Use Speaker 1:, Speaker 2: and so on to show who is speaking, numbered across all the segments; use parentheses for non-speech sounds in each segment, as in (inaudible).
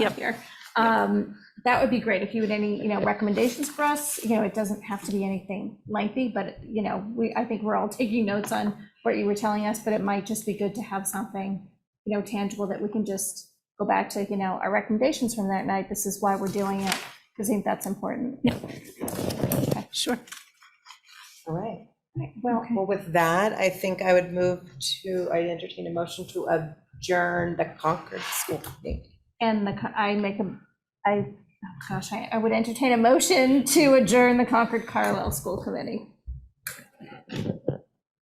Speaker 1: Yep.
Speaker 2: flag here. Um, That would be great if you had any, you know, recommendations for us. You know, it doesn't have to be anything lengthy, but, you know, we, I think we're all taking notes on what you were telling us, but it might just be good to have something, you know, tangible that we can just go back to, you know, our recommendations from that night. This is why we're doing it, because I think that's important.
Speaker 1: Sure.
Speaker 3: All right.
Speaker 2: Well,
Speaker 3: Well, with that, I think I would move to, I entertain a motion to adjourn the Concord School Committee.
Speaker 2: and the, co- I make a, I, oh gosh, I, I would entertain a motion to adjourn the Concord Carlisle School Committee.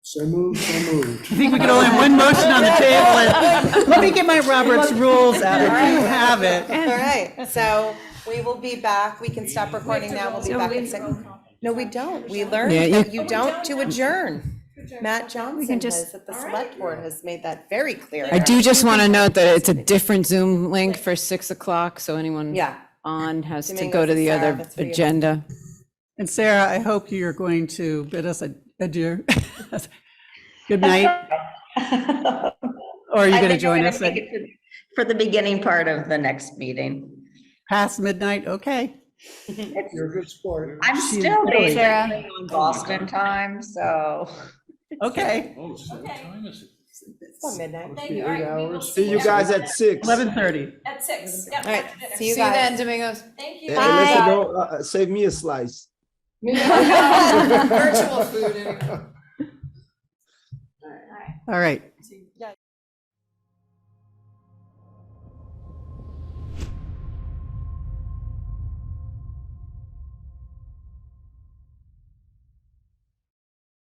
Speaker 4: So moved, so moved.
Speaker 1: I think we can only have one motion on the table. Let me get my Roberts rules out. if You have it.
Speaker 3: All right, so we will be back. We can stop recording now. We'll be back in second. No, we don't. We learned
Speaker 1: Yeah,
Speaker 3: that you don't to adjourn. Matt Johnson
Speaker 2: just-
Speaker 3: has, that the select board has made that very clear.
Speaker 5: I do just want to note that it's a different Zoom link for 6 o'clock, so anyone
Speaker 3: Yeah.
Speaker 5: on has to
Speaker 3: Dominguez
Speaker 5: go to
Speaker 3: and
Speaker 5: the
Speaker 3: Sarah,
Speaker 5: other
Speaker 3: the three of us.
Speaker 5: agenda.
Speaker 1: And Sarah, I hope you're going to bid us ad- adieu. (laughs) Good night,
Speaker 6: (laughs)
Speaker 1: or are you going to
Speaker 6: I think I'm
Speaker 1: join
Speaker 6: gonna
Speaker 1: us at
Speaker 6: make it to- For the beginning part of the next meeting.
Speaker 1: past midnight? Okay.
Speaker 4: You're a good sport.
Speaker 6: I'm still
Speaker 1: really-
Speaker 6: basically on Boston time, so.
Speaker 1: Okay.
Speaker 7: Oh, so what time is it?
Speaker 3: It's about midnight.
Speaker 4: Eight hours. See you guys at six.
Speaker 1: Eleven thirty.
Speaker 8: At six. Yep,
Speaker 3: All right,
Speaker 8: after dinner.
Speaker 3: see you guys.
Speaker 5: Domingos.
Speaker 8: Thank you.
Speaker 4: Unless you don't, uh, uh, save me a slice.
Speaker 5: Virtual food, anyway.
Speaker 1: All right.
Speaker 8: See you.